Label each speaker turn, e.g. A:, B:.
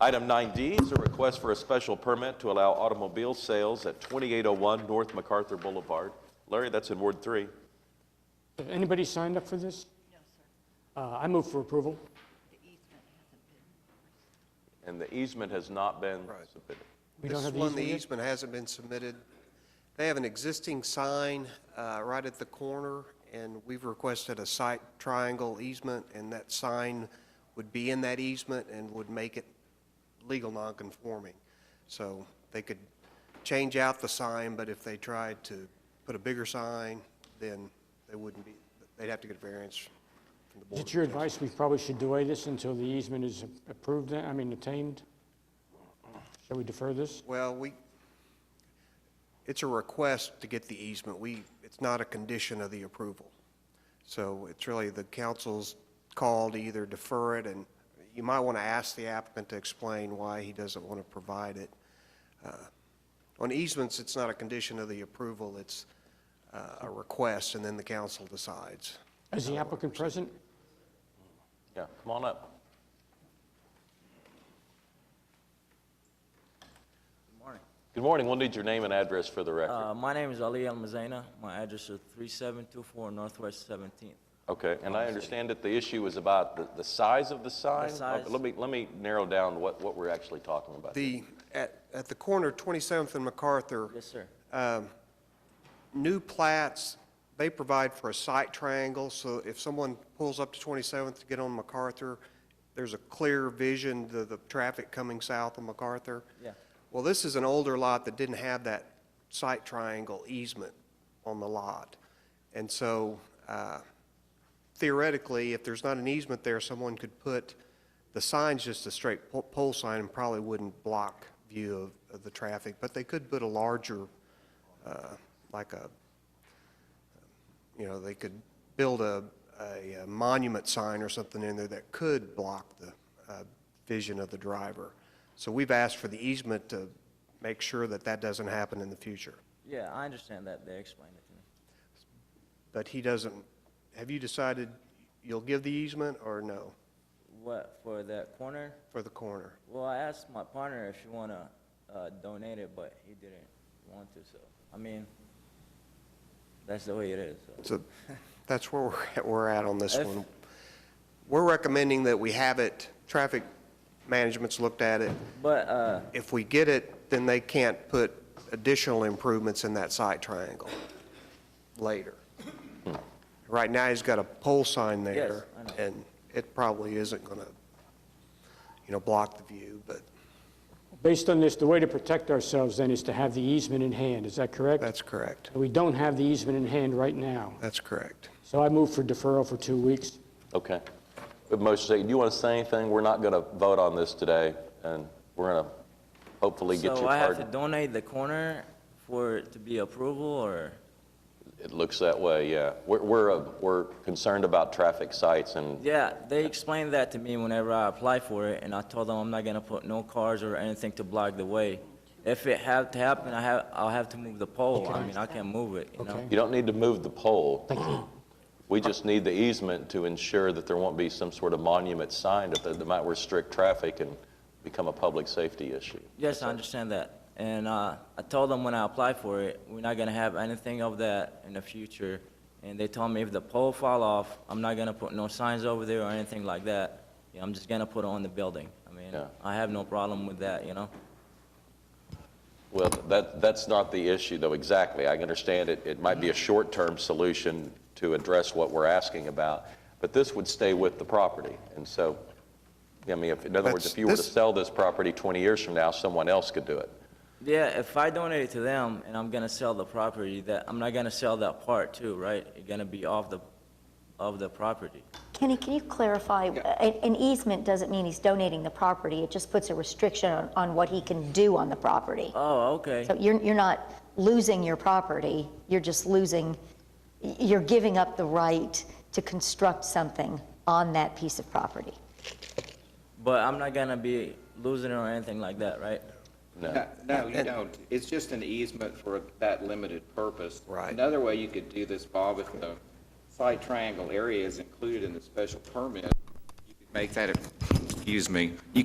A: Item 9D is a request for a special permit to allow automobile sales at 2801 North MacArthur Boulevard. Larry, that's in Ward 3.
B: Uh, Anybody signed up for this? No, sir. I move for approval.
A: And the easement has not been submitted.
B: We don't
C: This
B: have the
C: one, the
B: easement yet?
C: easement hasn't been submitted. They have an existing sign uh, right at the corner, and we've requested a site triangle easement, and that sign would be in that easement and would make it legal nonconforming. So they could change out the sign, but if they tried to put a bigger sign, then they wouldn't be, they'd have to get a variance from the
B: Is
C: board.
B: it your advice we probably should delay this until the easement is approved, uh, I mean, attained? Shall we defer this?
C: Well, we, it's a request to get the easement. We, it's not a condition of the approval. So it's really the council's call to either defer it, and you might want to ask the applicant to explain why he doesn't want to provide it. Uh, On easements, it's not a condition of the approval, it's uh, a request, and then the council decides.
B: Is the applicant present?
A: Yeah, come on up. Good morning. We'll need your name and address for the record.
D: Uh, My name is Ali El Mazaina. My address is 3724 Northwest 17th.
A: Okay, and I understand that the issue is about the, the size of the sign? Okay,
D: size.
A: Let me, let me narrow down what, what we're actually talking about.
C: The, at, at the corner of 27th and MacArthur,
D: Yes, sir.
C: new plats, they provide for a site triangle, so if someone pulls up to 27th to get on MacArthur, there's a clear vision to the traffic coming south of MacArthur.
D: Yeah.
C: Well, this is an older lot that didn't have that site triangle easement on the lot. And so uh, theoretically, if there's not an easement there, someone could put, the sign's just a straight po- pole sign and probably wouldn't block view of, of the traffic, but they could put a larger, uh, like a, you know, they could build a, a monument sign or something in there that could block the uh, vision of the driver. So we've asked for the easement to make sure that that doesn't happen in the future.
D: Yeah, I understand that. They explained it to me.
C: But he doesn't, have you decided you'll give the easement or no
D: What, for that corner?
C: for the corner?
D: Well, I asked my partner if she want to donate it, but he didn't want to, so, I mean, that's the way it is. so.
C: So that's where we're at- we're at on this
D: If-
C: one. We're recommending that we have it, traffic management's looked at it.
D: But, uh,
C: If we get it, then they can't put additional improvements in that site triangle later. Right now, he's got a pole sign there.
D: Hmm. Yes, I know.
C: And it probably isn't going to, you know, block the view, but
B: Based on this, the way to protect ourselves then is to have the easement in hand, is that correct?
C: that's correct.
B: We don't have the easement in hand right now,
C: That's correct.
B: so I move for deferral for two weeks.
A: Okay. But Moshe, do you want to say anything? We're not going to vote on this today, and we're going to hopefully get
D: so
A: your
D: I have to
A: pardon.
D: donate the corner for it to be approval, or?
A: It looks that way, yeah. We're, we're, uh, we're concerned about traffic sites and,
D: Yeah, they explained that to me whenever I applied for it, and I told them I'm not gonna put no cars or anything to block the way. If it have to happen, I have, I'll have to move the pole, I mean, I can't move it, you know?
B: Okay.
A: you don't need to move the pole.
B: Thank you.
A: We just need the easement to ensure that there won't be some sort of monument sign that- that might restrict traffic and become a public safety issue.
D: Yes, I understand that, and, uh, I told them when I applied for it, we're not gonna have anything of that in the future, and they told me if the pole fall off, I'm not gonna put no signs over there or anything like that, Yeah, I'm just gonna put it on the building, I mean,
A: Yeah.
D: I have no problem with that, you know?
A: Well, that, that's not the issue, though, exactly. I understand it, it might be a short-term solution to address what we're asking about, but this would stay with the property. And so, I mean, if, in other words,
C: That's-
A: if you were to
C: this-
A: sell this property 20 years from now, someone else could do it.
D: Yeah, if I donate it to them and I'm gonna sell the property, that, I'm not gonna sell that part too, right? It's gonna be off the, of the property.
E: Kenny, can you clarify, a- an easement doesn't mean he's donating the property, it just puts a restriction on, on what he can do on the property.
D: Oh, okay.
E: So you're, you're not losing your property, you're just losing, y- you're giving up the right to construct something on that piece of property.
D: But I'm not gonna be losing it or anything like that, right?
A: No.
F: No, No, you don't. It's just an easement for that limited purpose.
C: Right.
F: Another way you could do this, Bob, if the site triangle area is included in the special permit, you could make that, a- excuse me, you